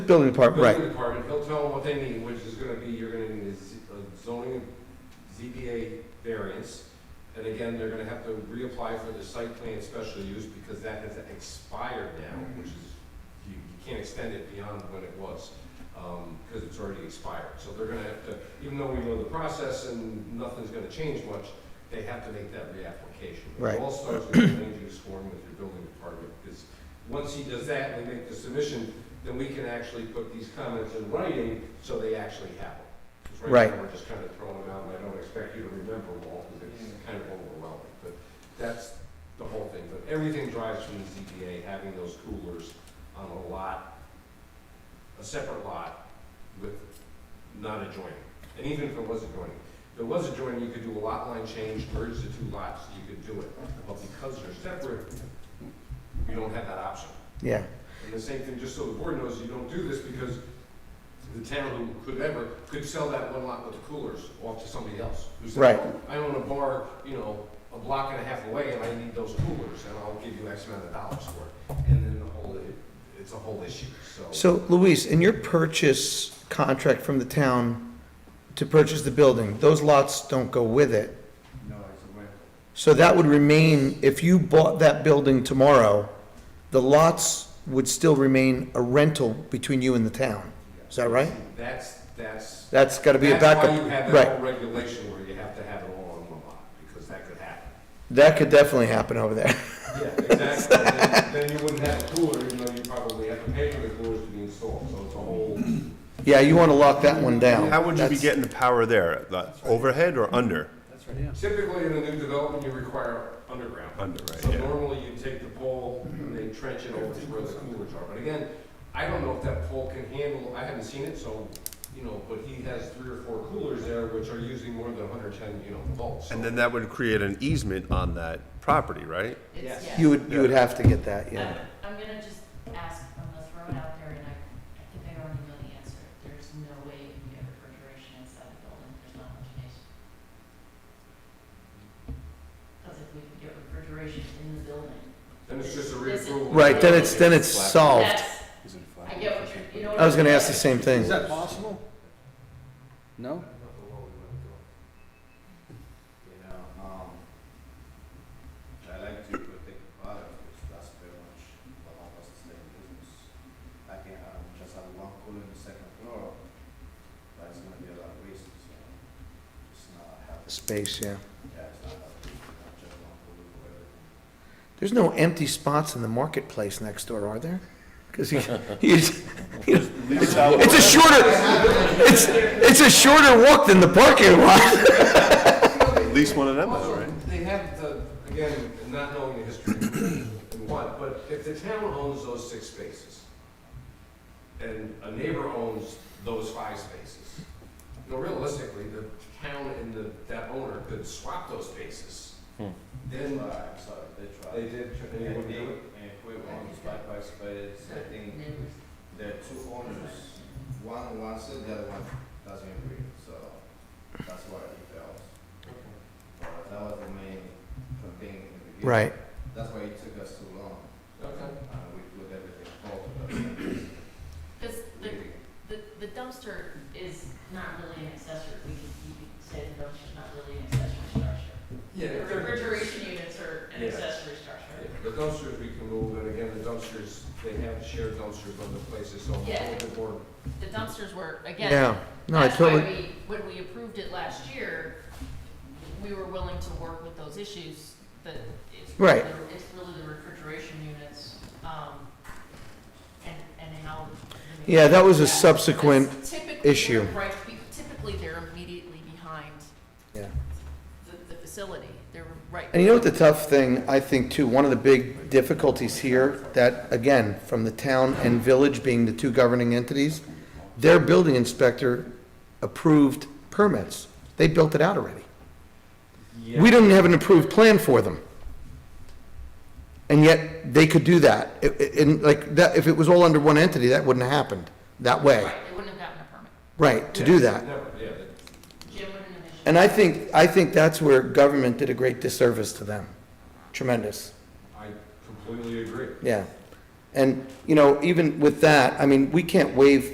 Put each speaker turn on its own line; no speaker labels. Building department,
building
right.
department, he'll tell them what they need, which is gonna be, you're gonna need a z- a zoning ZBA variance. And again, they're gonna have to reapply for the site plan special use because that has expired now, which is, you, you can't extend it beyond when it was, um, because it's already expired. So they're gonna have to, even though we know the process and nothing's gonna change much, they have to make that reapplication.
Right.
It all starts with the land use form with your building department, because once he does that and they make the submission, then we can actually put these comments in writing so they actually have them. 'Cause
Right.
now, we're just kind of throwing them out, and I don't expect you to remember them all, because it's kind of overwhelming, but that's the whole thing. But everything drives from the ZBA, having those coolers on a lot, a separate lot with not adjoining. And even if it was adjoining, if it was adjoining, you could do a lot line change, merge the two lots, you could do it. But because they're separate, you don't have that option.
Yeah,
And the same thing, just so the board knows, you don't do this because the town who could ever, could sell that one lot with the coolers off to somebody else. who said,
Right.
"Oh, I own a bar, you know, a block and a half away and I need those coolers and I'll give you X amount of dollars for it. And then the whole, it- it's a whole issue, so.
so Luis, in your purchase contract from the town to purchase the building, those lots don't go with it.
No, it's a rental.
So that would remain, if you bought that building tomorrow, the lots would still remain a rental between you and the town. Is that right?
That's, that's.
That's gotta be a
That's why
backup,
you have that
right.
whole regulation where you have to have it all on one lot, because that could happen.
That could definitely happen over there.
Yeah, exactly. Then- Then you wouldn't have a cooler, even though you probably have to pay for the coolers to be installed, so it's a whole.
Yeah, you wanna lock that one down.
How would you be
That's-
getting the power there? The Overhead or under?
Typically, in a new development, you require underground.
Under, right,
So
yeah.
normally, you take the pole, and they trench it over to where the coolers are. But again, I don't know if that pole can handle, I haven't seen it, so, you know, but he has three or four coolers there, which are using more than hundred and ten, you know, volts. so-
And then that would create an easement on that property, right?
Yes.
It's, yeah.
You would, you would have to get that, yeah.
I'm- I'm gonna just ask, I'm gonna throw it out there, and I, I think I already know the answer. There's no way you can get refrigeration inside the building, there's not much space. Because if we could get refrigeration in the building.
Then it's just a
This is-
reapproval.
Right, then it's, then it's solved.
That's, I get what you're, you know. what
I was gonna
I'm
ask the
saying?
same thing.
that possible? No?
You know, um, I like to protect the product, because that's pretty much what help us to stay in business. I can have just have one cooler in the second floor, but it's gonna be a lot of waste, so it's not healthy.
Space, yeah.
Yeah, it's not healthy, to have just one cooler for everything.
There's no empty spots in the marketplace next door, are there? Because you, you, just- you just- it's a shorter, it's, it's a shorter walk than the parking lot.
At least one of them, though, right?
Also, They have the, again, not knowing the history and what, but if the town owns those six spaces, and a neighbor owns those five spaces, you know, realistically, the town and the, that owner could swap those spaces. Then uh,
But I'm sorry, they tried.
they did, they
And
would
they,
do it.
and quit owners by price, but it's, I think,
Neighbors.
there are two owners. One wants it, the other one doesn't agree, so that's why it fails. But that was the main thing in the beginning.
Right.
That's why it took us too long,
Okay.
uh, we put everything forward,
Because
but
the,
really,
The, the dumpster is not really an accessory, we could, you could say the dumpster's not really an accessory structure.
Yeah,
The
if they're-
refrigeration units are an
Yeah.
accessory
Yeah,
structure.
The dumpsters we can move, and again, the dumpsters, they have shared dumpsters on the places, so I'm a
Yeah.
little bit more
The dumpsters were, again,
Yeah, no, I
that's why
totally,
we, when we approved it last year, we were willing to work with those issues, but it's really,
Right.
the- it's really the refrigeration units, um, and, and how. the-
Yeah, that was a subsequent
Because typically they're
issue.
Right, typically they're immediately behind
yeah.
the, the facility, they're right.
And you know what the tough thing, I think too, one of the big difficulties here, that again, from the town and village being the two governing entities, their building inspector approved permits. They built it out already. We didn't have an approved plan for them. And yet, they could do that. It- it- And like, that, if it was all under one entity, that wouldn't have happened that way.
Right, they wouldn't have gotten a permit.
Right, to do that.
Never, yeah, that-
Jim wouldn't have issued.
And I think, I think that's where government did a great disservice to them. Tremendous,
I completely agree.
yeah. And, you know, even with that, I mean, we can't waive